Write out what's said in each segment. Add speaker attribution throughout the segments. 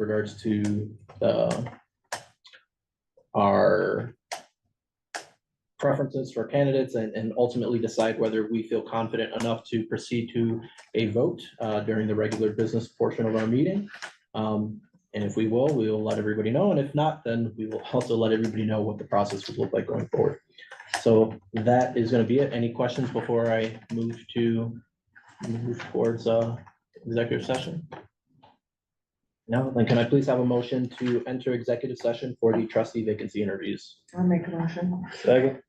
Speaker 1: regards to, uh, our preferences for candidates and, and ultimately decide whether we feel confident enough to proceed to a vote, uh, during the regular business portion of our meeting. Um, and if we will, we will let everybody know. And if not, then we will also let everybody know what the process would look like going forward. So that is gonna be it. Any questions before I move to move towards uh executive session? No, then can I please have a motion to enter executive session for the trustee vacancy interviews?
Speaker 2: I'll make a motion.
Speaker 1: Second.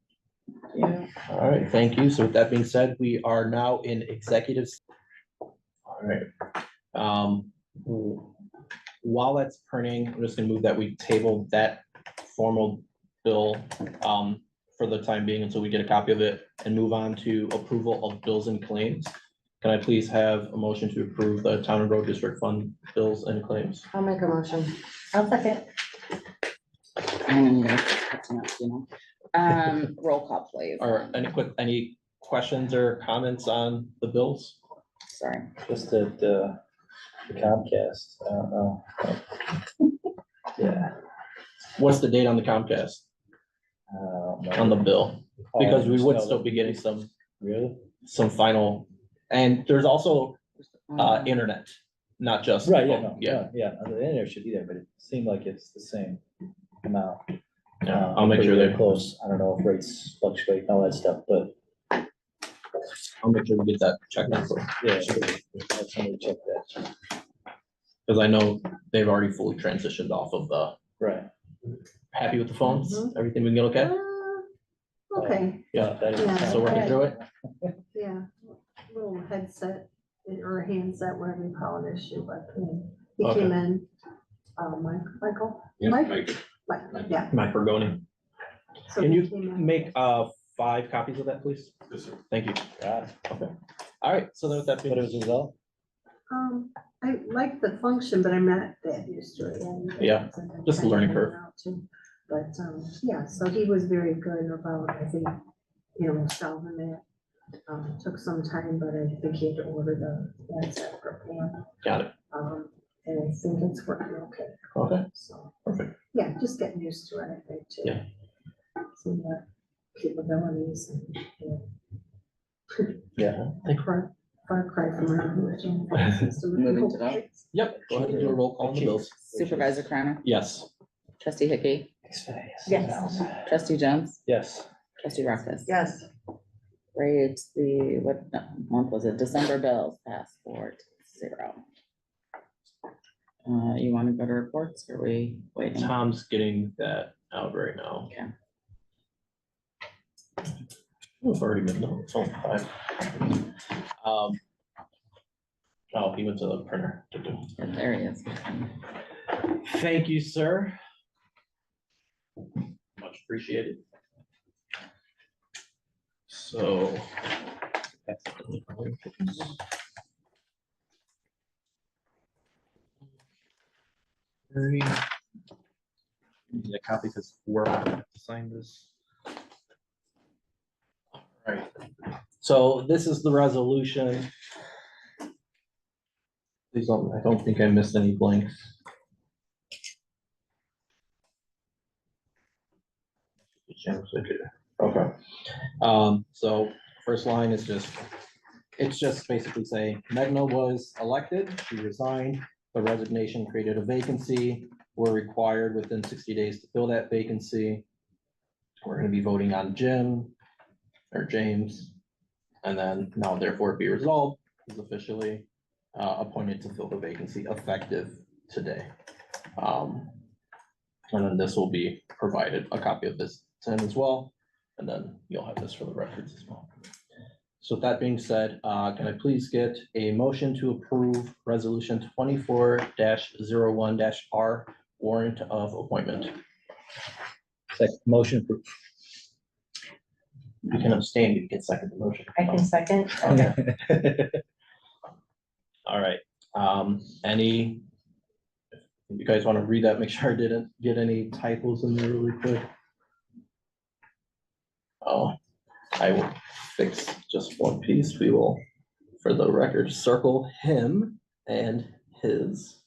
Speaker 2: Yeah.
Speaker 1: All right, thank you. So with that being said, we are now in executives. All right. Um, w- while that's printing, I'm just gonna move that we table that formal bill um for the time being until we get a copy of it and move on to approval of bills and claims. Can I please have a motion to approve the town and road district fund bills and claims?
Speaker 2: I'll make a motion.
Speaker 3: I'll second.
Speaker 4: I'm gonna cut them out, you know. Um, roll call, please.
Speaker 1: Or any quick, any questions or comments on the bills?
Speaker 4: Sorry.
Speaker 5: Just that uh, Comcast, I don't know. Yeah.
Speaker 1: What's the date on the Comcast
Speaker 5: I don't know.
Speaker 1: on the bill? Because we would
Speaker 5: Oh,
Speaker 1: still be getting some,
Speaker 5: Really?
Speaker 1: some final, and there's also, uh,
Speaker 4: Um,
Speaker 1: internet, not just.
Speaker 5: Right, yeah, no,
Speaker 1: Yeah,
Speaker 5: yeah, yeah, the internet should be there, but it seemed like it's the same amount.
Speaker 1: yeah,
Speaker 5: Uh,
Speaker 1: I'll make sure
Speaker 5: pretty
Speaker 1: they,
Speaker 5: Close, I don't know if rates fluctuate, and all that stuff, but
Speaker 1: I'll make sure we get that checked out,
Speaker 5: yeah. have Somebody check that,
Speaker 1: because I know they've already fully transitioned off of the,
Speaker 5: right.
Speaker 1: happy with the phones,
Speaker 2: Mhm.
Speaker 1: everything we can get okay?
Speaker 2: Uh, Okay,
Speaker 1: Yeah,
Speaker 5: Um, That is-
Speaker 2: Yeah.
Speaker 1: so working through it,
Speaker 2: yeah, little headset or handset, whatever you call it, issue, but mm, he
Speaker 1: Okay.
Speaker 2: came in. Uh, Mike, Michael,
Speaker 6: Yeah,
Speaker 2: Mike?
Speaker 6: Mike,
Speaker 2: Mike, yeah.
Speaker 1: Mike Bergoni,
Speaker 2: so
Speaker 1: can
Speaker 2: he
Speaker 1: you
Speaker 2: came in.
Speaker 1: make, uh, five copies of that, please?
Speaker 6: yes, sir.
Speaker 1: Thank you,
Speaker 5: God,
Speaker 1: all right, so then with that
Speaker 5: But it
Speaker 1: being,
Speaker 5: was resolved,
Speaker 2: Um, I like the function, but I'm not that used to it. and-
Speaker 1: Yeah, just a learning curve.
Speaker 2: But, um, yeah, so he was very good about, I think, you know, solving it. Um, took some time, but I think he had to order the handset for Pam.
Speaker 1: got it,
Speaker 2: Um, and I think it's working okay,
Speaker 1: okay,
Speaker 2: so,
Speaker 1: perfect,
Speaker 2: yeah, just getting used to it, I think, too.
Speaker 1: Yeah.
Speaker 2: Some of the capabilities and, you know,
Speaker 5: yeah.
Speaker 2: far, far cry from around here. Jim.
Speaker 4: Moving to that.
Speaker 1: yep, go ahead and do a roll call on the bills,
Speaker 4: Supervisor Crowner,
Speaker 1: yes.
Speaker 4: trustee Hickey,
Speaker 3: Yes.
Speaker 4: trustee Jones,
Speaker 5: Yes,
Speaker 4: trustee Rockfus.
Speaker 2: Yes.
Speaker 4: Right, the, what no, month was it? December bills passed four to zero. Uh, you wanna go to reports or we waiting?
Speaker 1: Tom's getting that out right now.
Speaker 4: Okay.
Speaker 1: Oh, It's already midnight, it's only five. Um. Oh, he went to the printer.
Speaker 4: There he is.
Speaker 1: Thank you, sir. Much appreciated. So. Very. Need a copy because we're signing this. Alright, so this is the resolution. Please don't, I don't think I missed any blanks. Okay, um, so first line is just, it's just basically saying Megna was elected, she resigned. The resignation created a vacancy, we're required within sixty days to fill that vacancy. We're gonna be voting on Jim or James. And then now therefore be resolved is officially uh appointed to fill the vacancy effective today. Um, and then this will be provided, a copy of this to him as well, and then you'll have this for the records as well. So with that being said, uh, can I please get a motion to approve resolution twenty-four one R warrant of appointment?
Speaker 5: second motion for
Speaker 1: You can abstain, you can second the motion.
Speaker 3: I can second.
Speaker 1: Okay. All right, um, any? if You guys want to read that, make sure I didn't get any typos in there really quick. Oh, I will fix just one piece, we will, for the record, circle him and his.